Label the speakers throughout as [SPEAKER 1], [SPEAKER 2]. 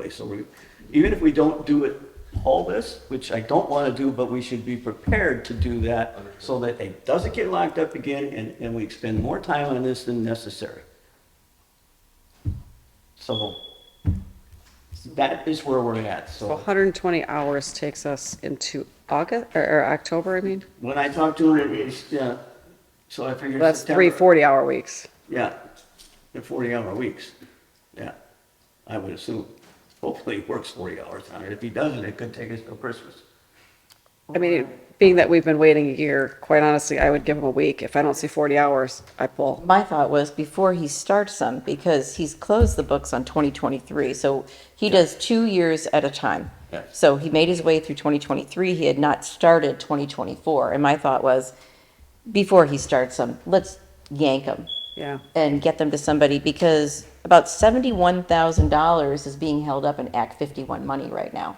[SPEAKER 1] anyway, so we, even if we don't do it all this, which I don't want to do, but we should be prepared to do that so that it doesn't get locked up again and, and we spend more time on this than necessary. So that is where we're at,
[SPEAKER 2] So
[SPEAKER 1] so
[SPEAKER 2] 120 hours takes us into August, or, or October, I mean?
[SPEAKER 1] when I talked to her, it's, uh, so I figured.
[SPEAKER 2] That's three
[SPEAKER 1] September.
[SPEAKER 2] 40-hour weeks.
[SPEAKER 1] Yeah, they're forty hour weeks, yeah, I would assume. Hopefully he works forty hours on it, if he doesn't, it could take us till Christmas.
[SPEAKER 2] I mean, being that we've been waiting a year, quite honestly, I would give him a week. If I don't see 40 hours, I pull.
[SPEAKER 3] My thought was before he starts them, because he's closed the books on 2023, so he does two years at a time.
[SPEAKER 1] Yes.
[SPEAKER 3] So he made his way through 2023, he had not started 2024, and my thought was, before he starts them, let's yank them
[SPEAKER 2] Yeah.
[SPEAKER 3] and get them to somebody, because about $71,000 is being held up in Act 51 money right now.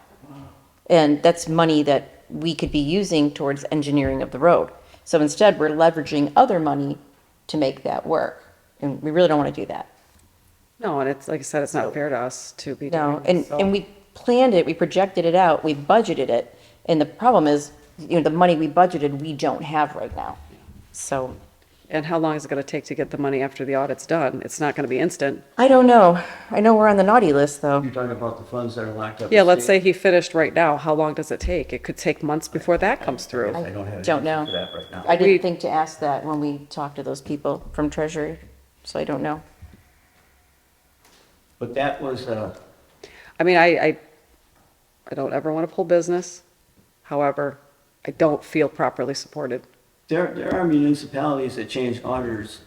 [SPEAKER 3] And that's money that we could be using towards engineering of the road. So instead, we're leveraging other money to make that work. And we really don't want to do that.
[SPEAKER 2] No, and it's, like I said, it's not fair to us to be doing.
[SPEAKER 3] No, and, and we planned it, we projected it out, we budgeted it. And the problem is, you know, the money we budgeted, we don't have right now. So
[SPEAKER 2] And how long is it going to take to get the money after the audit's done? It's not going to be instant.
[SPEAKER 3] I don't know. I know we're on the naughty list, though.
[SPEAKER 1] You're talking about the funds that are locked up.
[SPEAKER 2] Yeah, let's say he finished right now, how long does it take? It could take months before that comes through.
[SPEAKER 1] I don't have. an
[SPEAKER 3] Don't
[SPEAKER 1] answer
[SPEAKER 3] know.
[SPEAKER 1] for That right now.
[SPEAKER 3] I
[SPEAKER 2] We-
[SPEAKER 3] didn't think to ask that when we talked to those people from Treasury, so I don't know.
[SPEAKER 1] But that was, uh,
[SPEAKER 2] I mean, I, I, I don't ever want to pull business. However, I don't feel properly supported.
[SPEAKER 1] there, there are municipalities that change auditors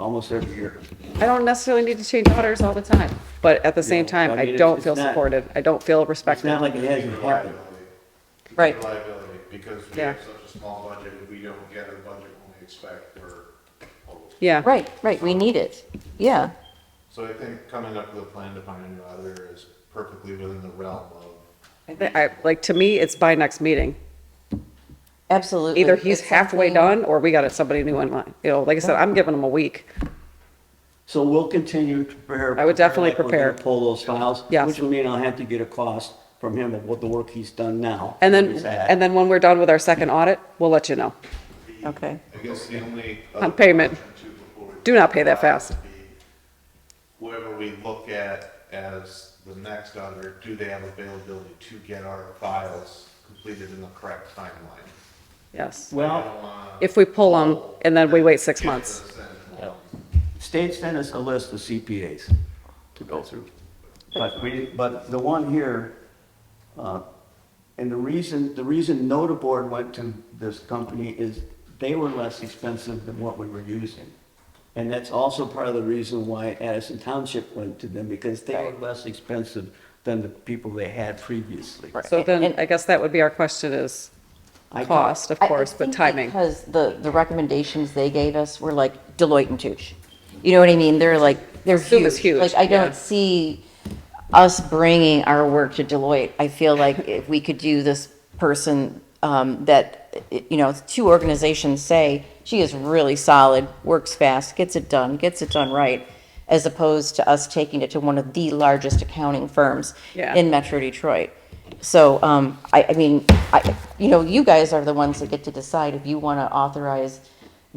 [SPEAKER 1] almost every year.
[SPEAKER 2] I don't necessarily need to change auditors all the time, but at the same
[SPEAKER 1] No,
[SPEAKER 2] time,
[SPEAKER 1] I mean,
[SPEAKER 2] I
[SPEAKER 1] it's-
[SPEAKER 2] don't
[SPEAKER 1] it's
[SPEAKER 2] feel
[SPEAKER 1] not-
[SPEAKER 2] supported. I don't feel
[SPEAKER 1] It's
[SPEAKER 2] respected.
[SPEAKER 1] not like it hasn't happened.
[SPEAKER 3] Right.
[SPEAKER 4] Reliability, because we
[SPEAKER 2] Yeah.
[SPEAKER 4] have such a small budget, and we don't get a budget when we expect or hope.
[SPEAKER 2] Yeah.
[SPEAKER 3] Right, right, we need it. Yeah,
[SPEAKER 4] So I think coming up with a plan to find a new auditor is perfectly within the realm of,
[SPEAKER 2] I thi- I, like, to me, it's by next meeting.
[SPEAKER 3] absolutely.
[SPEAKER 2] Either he's
[SPEAKER 3] It's
[SPEAKER 2] halfway
[SPEAKER 3] something-
[SPEAKER 2] done or we got somebody new in line. You know, like I said, I'm giving him a week.
[SPEAKER 1] So we'll continue to prepare.
[SPEAKER 2] I would definitely
[SPEAKER 1] like we're gonna
[SPEAKER 2] prepare.
[SPEAKER 1] Pull those files.
[SPEAKER 2] Yes.
[SPEAKER 1] Which will mean I'll have to get a cost from him of what the work he's done now.
[SPEAKER 2] And then,
[SPEAKER 1] where he's at.
[SPEAKER 2] and then when we're done with our second audit, we'll let you know.
[SPEAKER 3] Okay.
[SPEAKER 4] I guess the only.
[SPEAKER 2] On payment.
[SPEAKER 4] other option too before we-
[SPEAKER 2] Do not pay that fast.
[SPEAKER 4] would be Whoever we look at as the next auditor, do they have availability to get our files completed in the correct timeline?
[SPEAKER 2] Yes.
[SPEAKER 4] I
[SPEAKER 1] Well,
[SPEAKER 4] don't wanna
[SPEAKER 2] If we pull them and then we wait six
[SPEAKER 4] give
[SPEAKER 2] months.
[SPEAKER 4] this and-
[SPEAKER 1] state sent us a list of CPAs to go through. But we, but the one here, uh, and the reason, the reason Notaboard went to this company is they were less expensive than what we were using. And that's also part of the reason why Addison Township went to them, because they were less expensive than the people they had previously.
[SPEAKER 2] So then
[SPEAKER 3] And-
[SPEAKER 2] I guess that would be our question is
[SPEAKER 1] I-
[SPEAKER 2] cost, of
[SPEAKER 3] I- I
[SPEAKER 2] course, but
[SPEAKER 3] think
[SPEAKER 2] timing.
[SPEAKER 3] Because the, the recommendations they gave us were like Deloitte and Touche. You know what I mean? They're like, they're
[SPEAKER 2] Assume it's
[SPEAKER 3] huge.
[SPEAKER 2] huge,
[SPEAKER 3] Like, I
[SPEAKER 2] yeah.
[SPEAKER 3] don't see us bringing our work to Deloitte. I feel like if we could do this person, um, that, eh, you know, two organizations say, she is really solid, works fast, gets it done, gets it done right, as opposed to us taking it to one of the largest accounting firms
[SPEAKER 2] Yeah.
[SPEAKER 3] in Metro Detroit. So, um, I, I mean, I, you know, you guys are the ones that get to decide if you want to authorize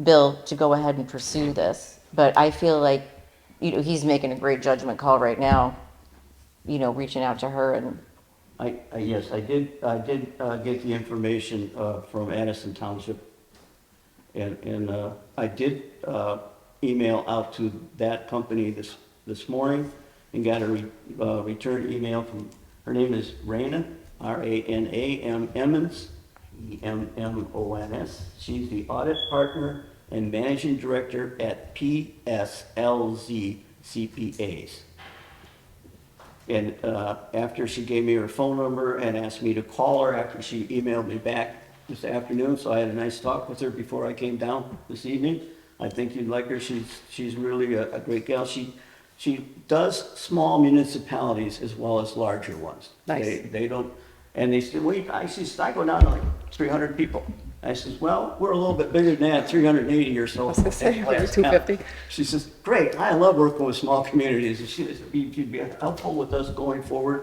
[SPEAKER 3] Bill to go ahead and pursue this. But I feel like, you know, he's making a great judgment call right now, you know, reaching out to her and,
[SPEAKER 1] I, I, yes, I did, I did, uh, get the information, uh, from Addison Township. And, and, uh, I did, uh, email out to that company this, this morning and got a, re- uh, return email from, her name is Raina, R-A-N-A-M Emmons, E E-M-M-O-N-S. She's the audit partner and managing director at PSLZ CPAs. And uh, after she gave me her phone number and asked me to call her after she emailed me back this afternoon, so I had a nice talk with her before I came down this evening. I think you'd like her. She's, she's really a, a great gal. She, she does small municipalities as well as larger ones.
[SPEAKER 2] Nice.
[SPEAKER 1] They- they don't, and they said, wait, I see, I go down to like three hundred people. I says, well, we're a little bit bigger than that, three hundred and eighty or so.
[SPEAKER 2] was gonna say,
[SPEAKER 1] at Lance
[SPEAKER 2] 250.
[SPEAKER 1] County. She says, great, I love working with small communities, and she, you'd be helpful with us going forward